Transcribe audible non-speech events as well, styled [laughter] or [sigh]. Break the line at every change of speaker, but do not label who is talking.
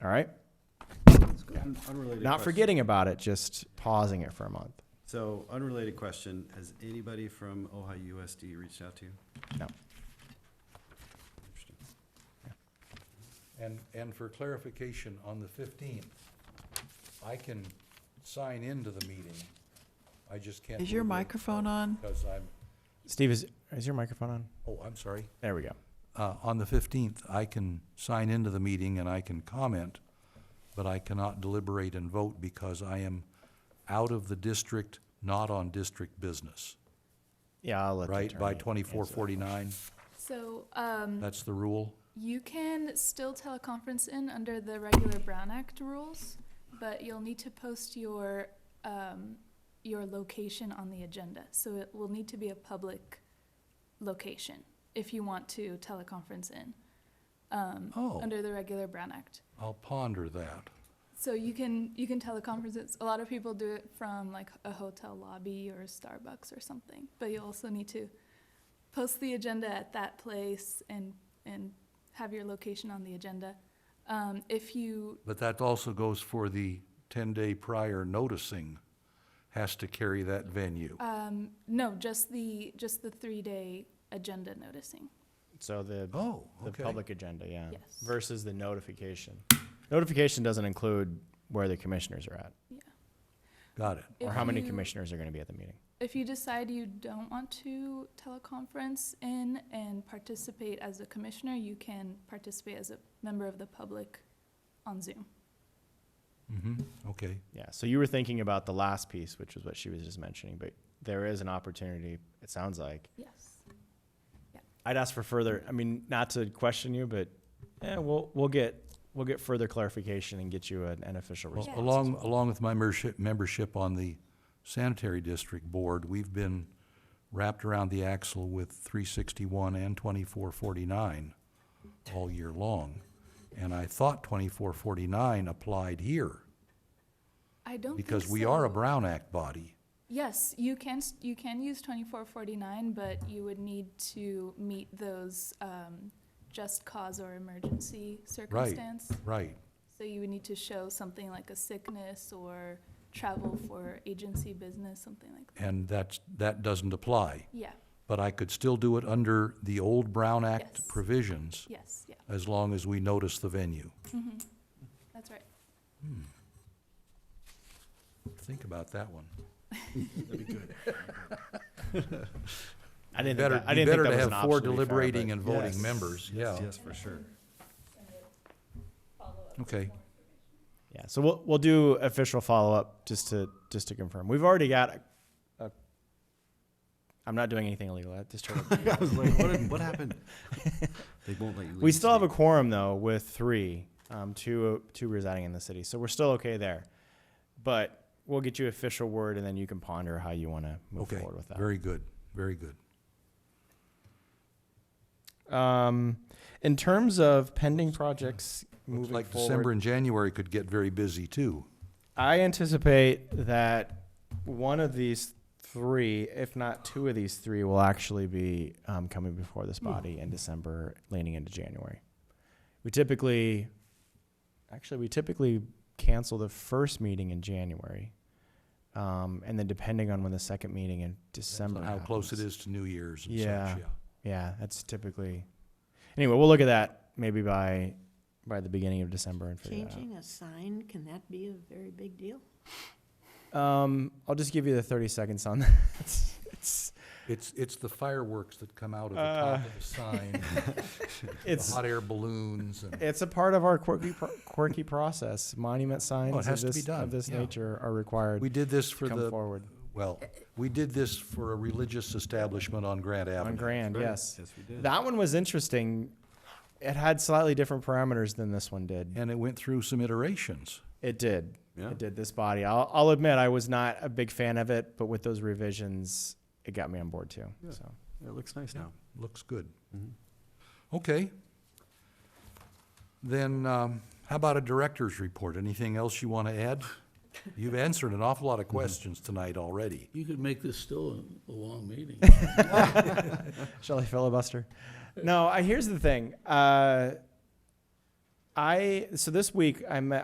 All right?
Un- Unrelated.
Not
question.
forgetting about it, just pausing it for a month.
So unrelated question, has anybody from Ohio USD reached out to you?
No.
Interesting.
And, and for clarification, on the fifteenth, I can sign into the meeting. I just can't.
Is your
leave it
microphone on?
Because I'm,
Steve, is, is your microphone on?
oh, I'm sorry.
There we go.
Uh, on the fifteenth, I can sign into the meeting and I can comment, but I cannot deliberate and vote because I am out of the district, not on district business,
Yeah, I'll let the
right? By
attorney
twenty-four
answer that.
forty-nine,
So um,
that's the rule?
you can still teleconference in under the regular Brown Act rules, but you'll need to post your um, your location on the agenda. So it will need to be a public location if you want to teleconference in um,
Oh.
under the regular Brown Act.
I'll ponder that.
So you can you can teleconference. It's, a lot of people do it from like a hotel lobby or Starbucks or something. But you also need to post the agenda at that place and and have your location on the agenda. Um, if you
But that also goes for the ten-day prior noticing has to carry that venue.
um, no, just the just the three day agenda noticing.
So the,
Oh,
the
okay.
public agenda, yeah.
Yes.
Versus the notification. Notification doesn't include where the commissioners are at
Got it.
or
If
how many
you-
commissioners are going to be at the meeting.
If you decide you don't want to teleconference in and participate as a commissioner, you can participate as a member of the public on Zoom.
hmm okay.
Yeah. So you were thinking about the last piece, which was what she was just mentioning, but there is an opportunity, it sounds like.
Yes.
I'd ask for further, I mean, not to question you, but yeah, we'll, we'll get, we'll get further clarification and get you an, an official
Well,
response. as
along,
well.
along with my membership, membership on the sanitary district board, we've been wrapped around the axle with three sixty-one and twenty-four forty-nine all year long. And I thought twenty-four forty-nine applied here,
I don't think
because we are a
so.
Brown Act body.
Yes, you can, s- you can use twenty-four forty-nine, but you would need to meet those, um, just cause or emergency circumstance.
Right,
So you would need to show something like a sickness or travel for agency business, something like that.
and that's, that doesn't apply.
Yeah,
But I could still do it under the old Brown Act
Yes.
provisions,
yes, yeah, Mm-hmm.
as long as we notice the venue.
that's right.
Think about that one.
I didn't think
Better,
that- I didn't
be
think
better
that
to
was an
have four
option, to be fair,
deliberating
but-
and [laughs] voting
Yes.
members, yeah.
Yes, Yes, for sure.
Okay,
Yeah, so we'll, we'll do official follow-up just to, just to confirm. We've already got a, a I'm not doing anything illegal. I just
[laughs]
turned-
[laughs] I was like, what, what [laughs] happened? They won't let you leave.
we still have a
state.
quorum though with three, um, two, two residing in the city. So we're still okay there. But we'll get you official word and then you can ponder how you want to move
okay,
forward with that.
very good, very good.
Um, in terms of pending projects
Looks
moving
like
forward,
December and January could get very busy too.
I anticipate that one of these three, if not two of these three, will actually be um, coming before
Hmm.
this body in December, leaning into January. We typically, actually, we typically cancel the first meeting in January, um, and then depending on when the second meeting in December,
How close it
happens.
is to New Year's and such,
Yeah.
yeah.
Yeah, that's typically. Anyway, we'll look at that maybe by by the beginning of December and figure that out.
Changing a sign, can that be a very big deal?
Um, I'll just give you the thirty seconds on [laughs] that. It's- it's
It's, it's the fireworks that come out of the top of
[laughs]
the sign, the
Uh, it's
hot air balloons and,
it's a part of our quirky pro- quirky process. Monument signs
Oh, has
of
to be
this,
done,
of this
yeah.
nature are required
we did this
to
for
come
the,
forward
well, we did this for a religious establishment on Grant
on
Avenue.
Grand.
Right.
Yes,
Yes, we did.
that one was interesting. It had slightly different parameters than this one did.
And it went through some iterations.
It did.
Yeah.
It did this body. I'll, I'll admit I was not a big fan of it, but with those revisions, it got me on board too.
Yeah.
So.
It looks nice now.
Looks good.
Mhm.
Okay. Then, um, how about a director's report? Anything else you want to add? You've answered an awful lot of questions tonight already.
You could make this still a a long meeting.
[laughs] Shall I filibuster? No, I, here's the thing. Uh, I so this week I met